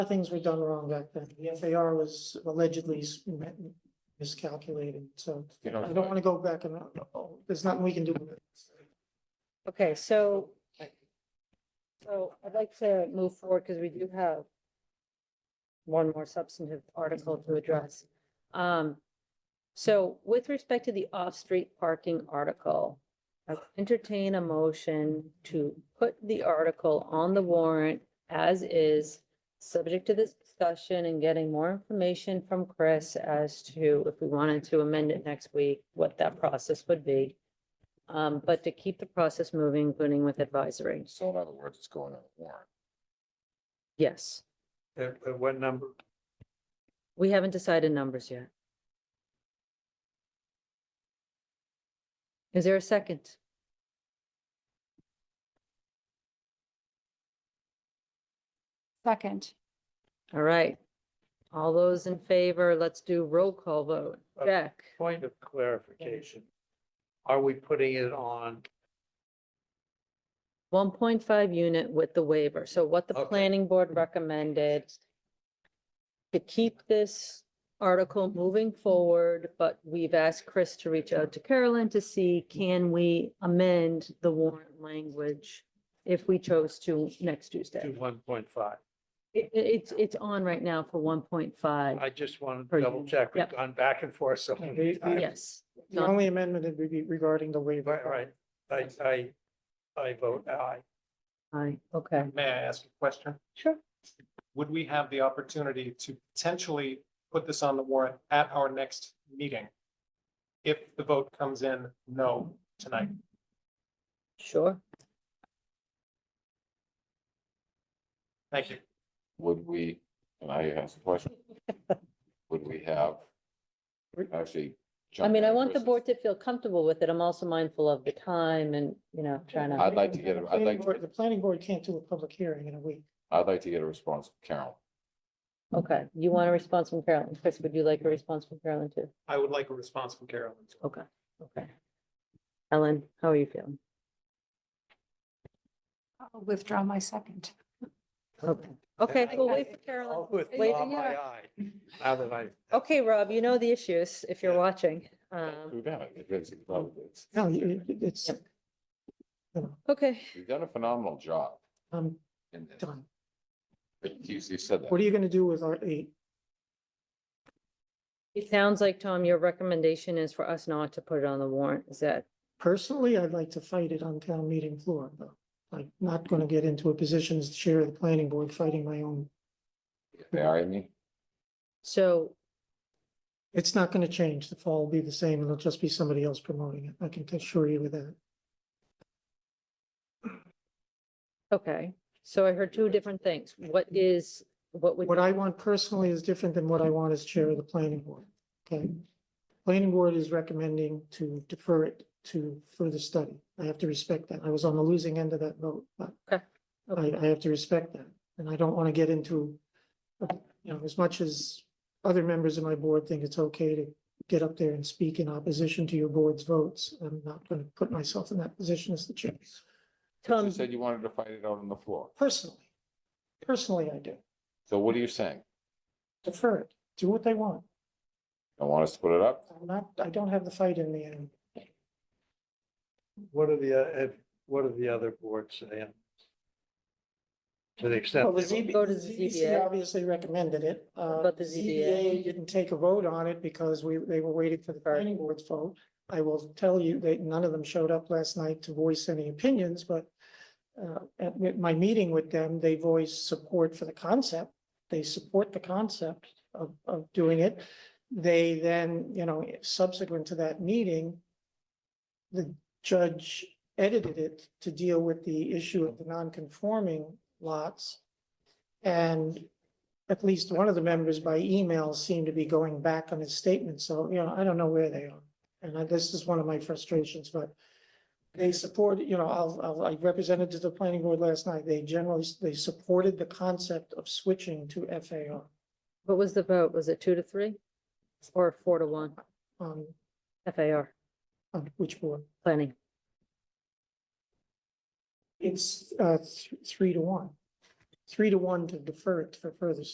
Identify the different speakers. Speaker 1: things were done wrong back then. The FAR was allegedly s- miscalculated, so
Speaker 2: You
Speaker 1: I
Speaker 2: know,
Speaker 1: don't want to go back and, oh, there's nothing we can do with it.
Speaker 3: Okay, so. So I'd like to move forward because we do have. One more substantive article to address. Um. So with respect to the off-street parking article. I entertain a motion to put the article on the warrant as is. Subject to this discussion and getting more information from Chris as to if we wanted to amend it next week, what that process would be. Um, but to keep the process moving, including with advisory.
Speaker 2: So in other words, it's going on a warrant.
Speaker 3: Yes,
Speaker 4: At, at what number?
Speaker 3: we haven't decided numbers yet. Is there a second?
Speaker 5: Second,
Speaker 3: All right. All those in favor, let's do roll call vote.
Speaker 4: Okay.
Speaker 3: Jack,
Speaker 4: Point of clarification. Are we putting it on?
Speaker 3: one point five unit with the waiver. So what the
Speaker 4: Okay.
Speaker 3: planning board recommended to keep this article moving forward, but we've asked Chris to reach out to Carolyn to see can we amend the warrant language if we chose to next Tuesday.
Speaker 4: To one point five.
Speaker 3: It, it- it's, it's on right now for one point five.
Speaker 4: I just wanted
Speaker 3: Per
Speaker 4: to double
Speaker 3: unit,
Speaker 4: check. We've
Speaker 3: yep.
Speaker 4: gone back and forth so many
Speaker 1: They- they-
Speaker 4: times.
Speaker 3: Yes.
Speaker 1: The only amendment would be regarding the waiver.
Speaker 4: Right, right. I, I, I vote aye.
Speaker 3: Aye, okay.
Speaker 6: May I ask a question?
Speaker 3: Sure.
Speaker 6: Would we have the opportunity to potentially put this on the warrant at our next meeting? If the vote comes in no tonight?
Speaker 4: Mm-hmm.
Speaker 3: Sure.
Speaker 6: Thank you.
Speaker 2: Would we, and I ask a question, would we have actually?
Speaker 3: I mean, I
Speaker 2: jumping
Speaker 3: want the
Speaker 2: versus-
Speaker 3: board to feel comfortable with it. I'm also mindful of the time and, you know, trying to.
Speaker 2: I'd like to get a- I'd
Speaker 1: Planning
Speaker 2: like to-
Speaker 1: board- The planning board can't do a public hearing in a week.
Speaker 2: I'd like to get a response from Carolyn.
Speaker 3: Okay, you want a response from Carolyn? Chris, would you like a response from Carolyn too?
Speaker 6: I would like a response from Carolyn.
Speaker 3: Okay, okay. Ellen, how are you feeling?
Speaker 5: I'll withdraw my second.
Speaker 3: Okay, okay,
Speaker 4: I-
Speaker 3: we'll
Speaker 4: I-
Speaker 3: wait for Carolyn.
Speaker 4: I'll withdraw
Speaker 3: Wait.
Speaker 4: my aye. Oh, Now that I.
Speaker 3: Okay, Rob, you know the issues if you're
Speaker 4: Yeah.
Speaker 3: watching. Um,
Speaker 2: We've done it. It's- it's-
Speaker 1: No, you- you- it's,
Speaker 3: Yep. okay,
Speaker 2: You've done a phenomenal job
Speaker 1: I'm
Speaker 2: in this.
Speaker 1: um, done.
Speaker 2: You you said
Speaker 1: What
Speaker 2: that.
Speaker 1: are you going to do with our eight?
Speaker 3: it sounds like, Tom, your recommendation is for us not to put it on the warrant. Is that
Speaker 1: Personally, I'd like to fight it on town meeting floor, though. I'm not going to get into a position as chair of the planning board fighting my own.
Speaker 2: Marry me?
Speaker 3: so?
Speaker 1: It's not going to change. The fall will be the same. It'll just be somebody else promoting it. I can assure you of that.
Speaker 3: Okay, so I heard two different things. What is, what would?
Speaker 1: What I want personally is different than what I want as chair of the planning board, okay? Planning board is recommending to defer it to further study. I have to respect that. I was on the losing end of that vote, but I,
Speaker 3: okay.
Speaker 1: I have to respect that. And I don't want to get into, you know, as much as other members of my board think it's okay to get up there and speak in opposition to your board's votes, I'm not going to put myself in that position as the chair.
Speaker 2: You
Speaker 3: Tom,
Speaker 2: said you wanted to fight it out on the floor.
Speaker 1: Personally, personally, I do.
Speaker 2: So what are you saying?
Speaker 1: Defer it. Do what they want.
Speaker 2: Don't want us to put it up?
Speaker 1: I'm not, I don't have the fight in me anymore.
Speaker 4: What are the, uh, if- what are the other boards saying? To the extent.
Speaker 1: Well, the
Speaker 4: they were-
Speaker 1: ZB,
Speaker 3: Go to the
Speaker 1: ZBC
Speaker 3: ZBA.
Speaker 1: obviously recommended it. Uh,
Speaker 3: But the ZBA.
Speaker 1: ZBA Didn't take a vote on it because we, they were waiting for the planning board's vote. I will tell you that none of them showed up last night to voice any opinions, but uh, at mi- my meeting with them, they voiced support for the concept. They support the concept of, of doing it. They then, you know, subsequent to that meeting, the judge edited it to deal with the issue of the non-conforming lots. And at least one of the members by email seemed to be going back on his statement, so, you know, I don't know where they are. And I- this is one of my frustrations, but they support, you know, I'll, I'll, I represented to the planning board last night, they generally, they supported the concept of switching to FAR.
Speaker 3: what was the vote? Was it two to three? Or four to one?
Speaker 1: On,
Speaker 3: FAR,
Speaker 1: on which board?
Speaker 3: planning.
Speaker 1: It's, uh, th- three to one. Three to one to defer it for further